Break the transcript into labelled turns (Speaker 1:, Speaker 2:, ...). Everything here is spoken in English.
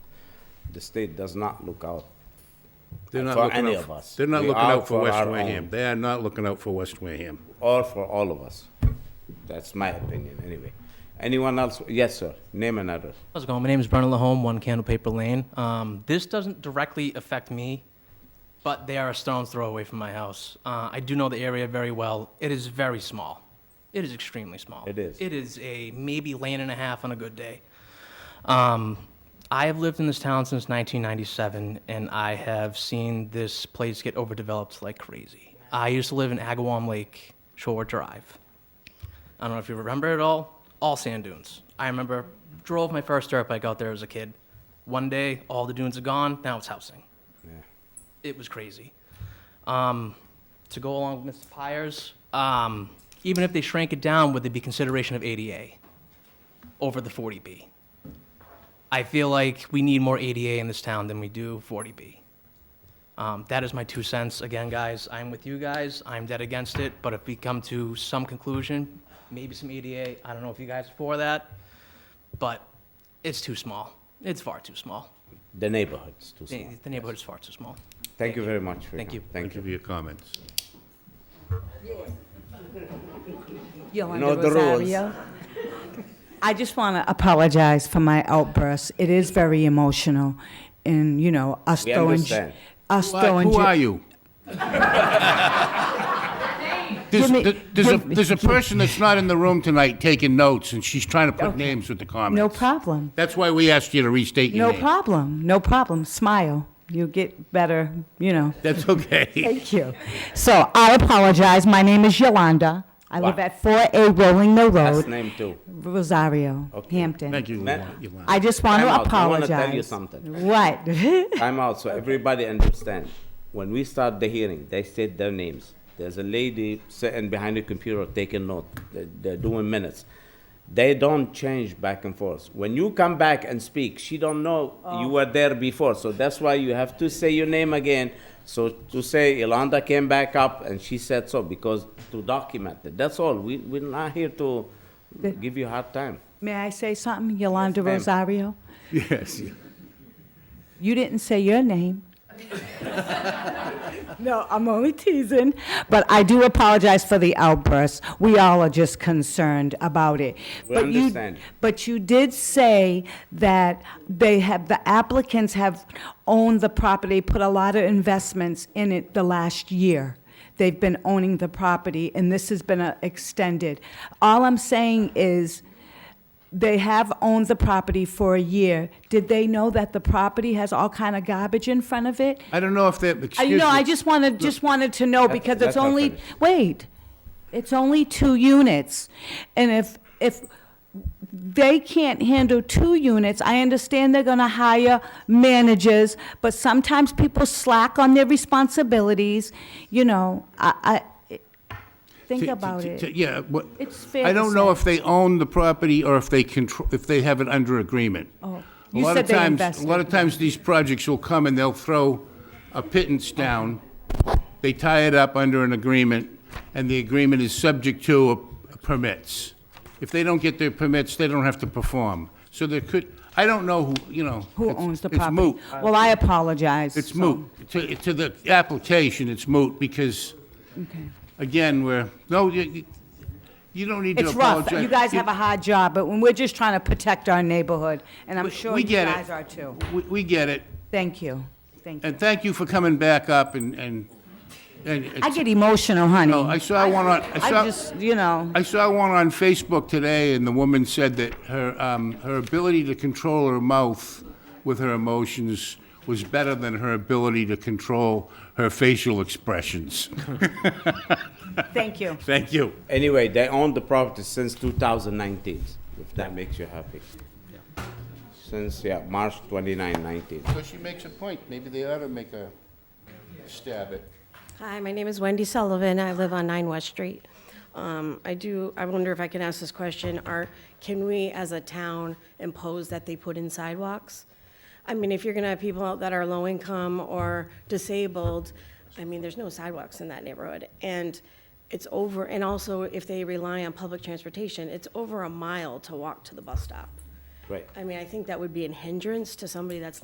Speaker 1: the state does not look out.
Speaker 2: They're not
Speaker 1: Uh, For
Speaker 2: looking
Speaker 1: any
Speaker 2: out-
Speaker 1: of us.
Speaker 2: They're not
Speaker 1: We
Speaker 2: looking
Speaker 1: are
Speaker 2: out for
Speaker 1: for
Speaker 2: West
Speaker 1: our
Speaker 2: Wareham.
Speaker 1: own.
Speaker 2: They are not looking out for West Wareham.
Speaker 1: or for all of us. That's my opinion, anyway. Anyone else? Yes, sir. Name and address.
Speaker 3: How's it going? My name is Brennan Lahome, One Candle Paper Lane. Um, this doesn't directly affect me, but they are a stone's throw away from my house. Uh, I do know the area very well. It is very small. It is extremely small.
Speaker 1: It is.
Speaker 3: It is a maybe lane and a half on a good day. Um, I have lived in this town since 1997, and I have seen this place get overdeveloped like crazy. I used to live in Agawam Lake Shore Drive. I don't know if you remember it all, all sand dunes. I remember drove my first dirt bike out there as a kid. One day, all the dunes are gone. Now it's housing. It was crazy. Um, to go along with Mr. Pires, um, even if they shrank it down, would there be consideration of ADA over the 40B? I feel like we need more ADA in this town than we do 40B. Um, that is my two cents. Again, guys, I'm with you guys. I'm dead against it. But if we come to some conclusion, maybe some EDA, I don't know if you guys are for that, but it's too small. It's far too small.
Speaker 1: The neighborhood's too small.
Speaker 3: The the neighborhood is far too small.
Speaker 1: Thank you very much. for
Speaker 3: Thank
Speaker 1: your-
Speaker 3: you.
Speaker 1: Thank
Speaker 2: Thank you
Speaker 1: you.
Speaker 2: for your comments.
Speaker 1: Know
Speaker 4: Yolanda
Speaker 1: the rules.
Speaker 4: Rosario. I just want to apologize for my outburst. It is very emotional, and, you know, us
Speaker 1: We
Speaker 4: throwing... j-
Speaker 1: understand.
Speaker 4: Us
Speaker 2: Why-
Speaker 4: throwing...
Speaker 2: Who
Speaker 4: j-
Speaker 2: are you? There's,
Speaker 4: Give me-
Speaker 2: th- there's a,
Speaker 4: give me-
Speaker 2: there's a person that's not in the room tonight taking notes, and she's trying to put names with the comments.
Speaker 4: No problem.
Speaker 2: That's why we asked you to restate your
Speaker 4: No
Speaker 2: name.
Speaker 4: problem. No problem. Smile. You'll get better, you know.
Speaker 2: That's okay.
Speaker 4: Thank you. So I apologize. My name is Yolanda. I live
Speaker 1: Wow.
Speaker 4: at 4A Rolling Mill
Speaker 1: Last
Speaker 4: Road,
Speaker 1: name too.
Speaker 4: Rosario, Hampton.
Speaker 2: Thank you,
Speaker 1: Ma-
Speaker 2: Yolanda.
Speaker 4: I just want
Speaker 1: Time
Speaker 4: to
Speaker 1: out.
Speaker 4: apologize.
Speaker 1: I wanna tell you something.
Speaker 4: What?
Speaker 1: Time out, so everybody understand. When we start the hearing, they state their names. There's a lady sitting behind the computer taking note. They're, they're doing minutes. They don't change back and forth. When you come back and speak, she don't know you were there before. So that's why you have to say your name again. So to say Yolanda came back up and she said so because to document it. That's all. We, we're not here to give you a hard time.
Speaker 4: May I say something, Yolanda
Speaker 1: Yes, ma'am.
Speaker 4: Rosario?
Speaker 2: Yes.
Speaker 4: You didn't say your name. no, I'm only teasing. But I do apologize for the outburst. We all are just concerned about it.
Speaker 1: We
Speaker 4: but
Speaker 1: understand.
Speaker 4: You, but you did say that they have, the applicants have owned the property, put a lot of investments in it the last year. They've been owning the property, and this has been uh, extended. All I'm saying is, they have owned the property for a year. Did they know that the property has all kind of garbage in front of it?
Speaker 2: I don't know if that,
Speaker 4: I,
Speaker 2: excuse me.
Speaker 4: you know, I just wanted, just wanted to know
Speaker 1: Let-
Speaker 4: because
Speaker 1: let
Speaker 4: it's
Speaker 1: her
Speaker 4: only,
Speaker 1: finish.
Speaker 4: wait, it's only two units. And if, if they can't handle two units, I understand they're gonna hire managers, but sometimes people slack on their responsibilities, you know, I, I, think
Speaker 2: T- t-
Speaker 4: about
Speaker 2: t-
Speaker 4: it.
Speaker 2: t- Yeah, what?
Speaker 4: It's fair
Speaker 2: I
Speaker 4: to
Speaker 2: don't know
Speaker 4: say.
Speaker 2: if they own the property or if they control, if they have it under agreement. Oh,
Speaker 4: You said they invested.
Speaker 2: A lot of times, these projects will come and they'll throw a pittance down. They tie it up under an agreement, and the agreement is subject to a- permits. If they don't get their permits, they don't have to perform. So there could, I don't know who, you know.
Speaker 4: Who
Speaker 2: it's-
Speaker 4: owns the
Speaker 2: it's
Speaker 4: property?
Speaker 2: moot.
Speaker 4: Well, I apologize.
Speaker 2: It's
Speaker 4: so-
Speaker 2: moot. To, to the application, it's moot because, again, we're, no, you, you- you don't need to
Speaker 4: It's rough.
Speaker 2: apologize.
Speaker 4: You guys have a hard job, but when we're just trying to protect our neighborhood, and I'm sure
Speaker 2: we
Speaker 4: you
Speaker 2: get it.
Speaker 4: guys are too.
Speaker 2: We, we get it.
Speaker 4: Thank you. Thank you.
Speaker 2: And thank you for coming back up and, and, and.
Speaker 4: I get emotional, honey.
Speaker 2: No, I saw one on, I
Speaker 4: I
Speaker 2: saw,
Speaker 4: just, you know,
Speaker 2: I saw one on Facebook today and the woman said that her, um, her ability to control her mouth with her emotions was better than her ability to control her facial expressions.
Speaker 4: thank you.
Speaker 2: Thank you.
Speaker 1: Anyway, they own the property since 2019, if that makes you happy. Since, yeah, March 29, 19.
Speaker 2: So she makes a point, maybe they ought to make a stab at.
Speaker 5: Hi, my name is Wendy Sullivan. I live on 9 West Street. Um, I do, I wonder if I can ask this question, are, can we as a town impose that they put in sidewalks? I mean, if you're gonna have people out that are low income or disabled, I mean, there's no sidewalks in that neighborhood. And it's over, and also if they rely on public transportation, it's over a mile to walk to the bus stop.
Speaker 1: Right.
Speaker 5: I mean, I think that would be a hindrance to somebody that's